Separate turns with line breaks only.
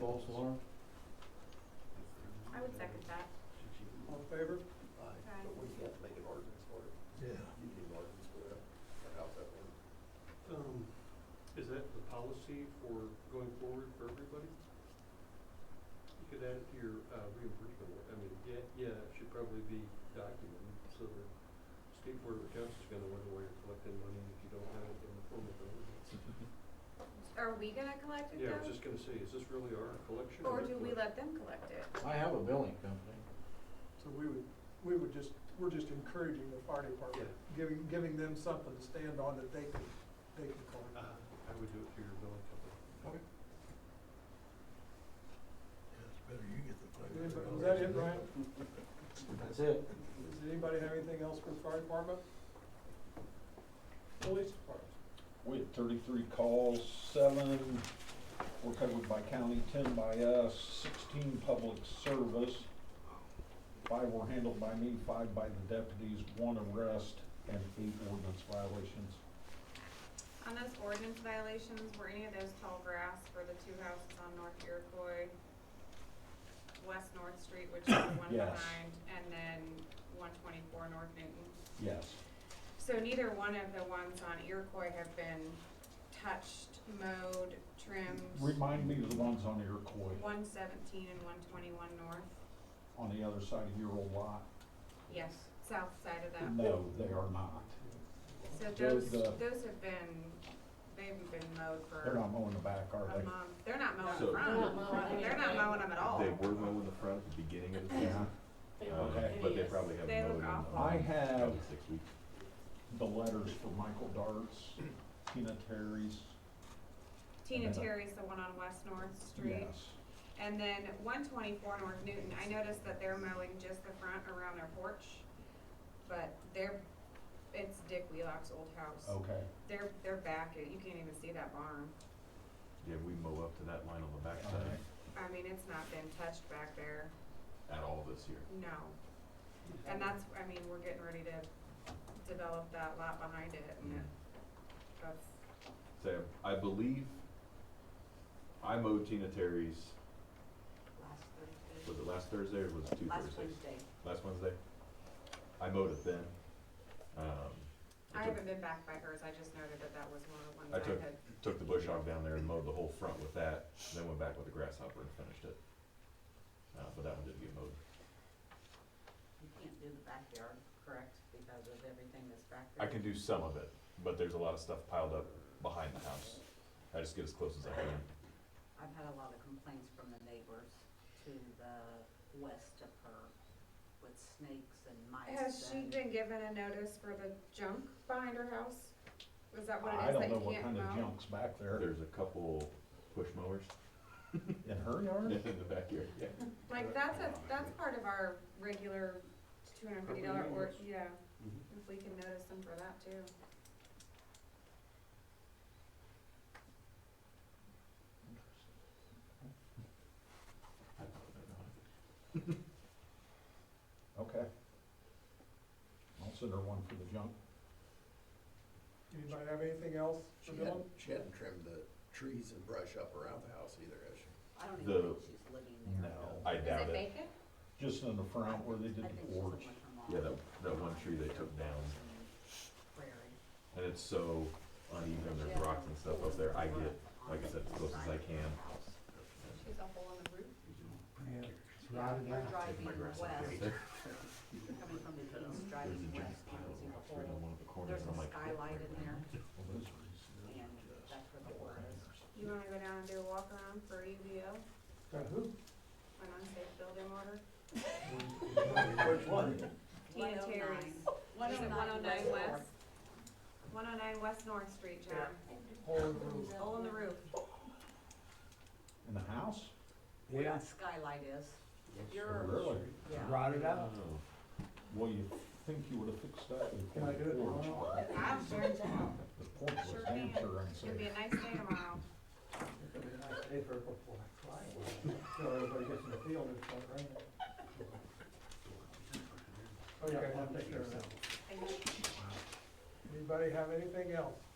polls, Laura?
I would second that.
All in favor?
Aye.
But we can't make an ordinance for it.
Yeah.
You need an ordinance for that, or how's that work?
Um, is that the policy for going forward for everybody? You could add it to your, uh, reimbursement, I mean, yeah, yeah, it should probably be documented, so the state board of accounts is gonna wonder why you're collecting money if you don't have it in the form of an ordinance.
Are we gonna collect it
Yeah, I was
though?
just gonna say, is this really our collection?
Or
your
do we
collection?
let them collect it?
I have a billing company.
So we would, we would just, we're just encouraging the fire department, giving, giving them something to stand on that they can, they can collect.
Uh, I would do it through your billing company.
Anybody- Is that it, Brian?
That's it.
Does anybody have anything else for the fire department? Police department?
We had thirty-three calls, seven were covered by county, ten by us, sixteen public service. Five were handled by me, five by the deputies, one arrest, and eight ordinance violations.
On those ordinance violations, were any of those tall grass for the two houses on North Iroquois, West North Street, which is the one
Yes.
behind, and then one twenty-four North Newton?
Yes,
So neither one of the ones on Iroquois have been touched, mowed, trimmed,
remind me of the ones on Iroquois,
one seventeen and one twenty-one north?
on the other side of your old lot.
Yes, south side of that.
No, they are not.
So
Those,
those,
uh,
those have been, they've been mowed for.
They're not mowing the back, are
a
they?
month. They're not mowing
So-
the
They're
front.
not mowing
They're not
anything.
mowing them at all.
They were mowing the front at the beginning of the
Yeah.
season,
Okay.
uh, but they probably
They
haven't mowed
look
in
awful.
um,
I have-
probably six weeks.
The letters for Michael Darts, Tina Terry's,
Tina Terry's the one on West North Street.
yes.
And then one twenty-four North Newton, I noticed that they're mowing just the front around their porch. But they're, it's Dick Wheelock's old house.
Okay,
They're, they're back, you can't even see that barn.
Yeah, we mow up to that line on the
all right.
backside
I mean, it's not been touched back there,
at all this year.
no. And that's, I mean, we're getting ready to develop that lot behind it and it, that's,
So I believe I mowed Tina Terry's,
Last Thursday.
was it last Thursday or was it two
Last
Thursdays?
Wednesday.
Last Wednesday? I mowed it then.
I
Um, I took,
haven't been back by hers, I just noted that that was one of the ones
I
I
took-
had,
took the bush hog down there and mowed the whole front with that, then went back with the grasshopper and finished it. Uh, but that one didn't get mowed.
You can't do the backyard, correct, because of everything that's back there?
I can do some of it, but there's a lot of stuff piled up behind the house. I just get as close as I can.
I've had a lot of complaints from the neighbors to the west of her with snakes and mice
has she
and-
been given a notice for the junk behind her house? Is that what it
I
is
don't
that
know
you
what
can't
kind of
mow?
junk's back there
There's a couple push mowers
in her
in
yard?
the backyard, yeah.
Like, that's a, that's part of our regular two hundred and fifty dollar
Property
or,
maintenance.
yeah,
Mhm.
if we can notice them for that too.
Okay. I'll send her one for the junk.
Anybody have anything else for Dylan?
She hadn't trimmed the trees and brush up around the house either, has she?
I don't
The-
even think she's living there.
No.
I
Is
doubt
it
it.
vacant?
Just in the front where they
I
did
think
the
she's
porch.
living with her
Yeah,
mom.
that, that one tree they took down,
Prairie.
and it's so uneven, there's rocks and stuff up there. I get, like I said, as close as I can.
She's a hole in the roof.
Rotted out. Driving
My
west,
grass is there.
coming from the east,
There's
driving
a giant
west, you
pile
can see
of rocks
the
right on
whole,
one of the corners.
there's
I'm
a
like,
skylight in there,
Well, those are
and that's where the water is.
You wanna go down and do a walk around for UVO,
Got who?
an unsafe building order?
Which one?
oh
Tina Terry's. Is it 109 West? One oh nine West North Street, John. Hole in the roof.
In the house?
Where that skylight is, you're,
Really?
yeah,
Rotted
oh.
out.
Well, you think you would have fixed that
Can I
before
do
the
it
porch.
tomorrow?
I'm sure it's out.
The porch
Sure
was
can.
damn sure
It's gonna be
unsafe.
a nice day tomorrow.
So everybody gets in the field and start raining.
Oh,
Okay, I'll take care of that.
Thank you.
Anybody have anything else?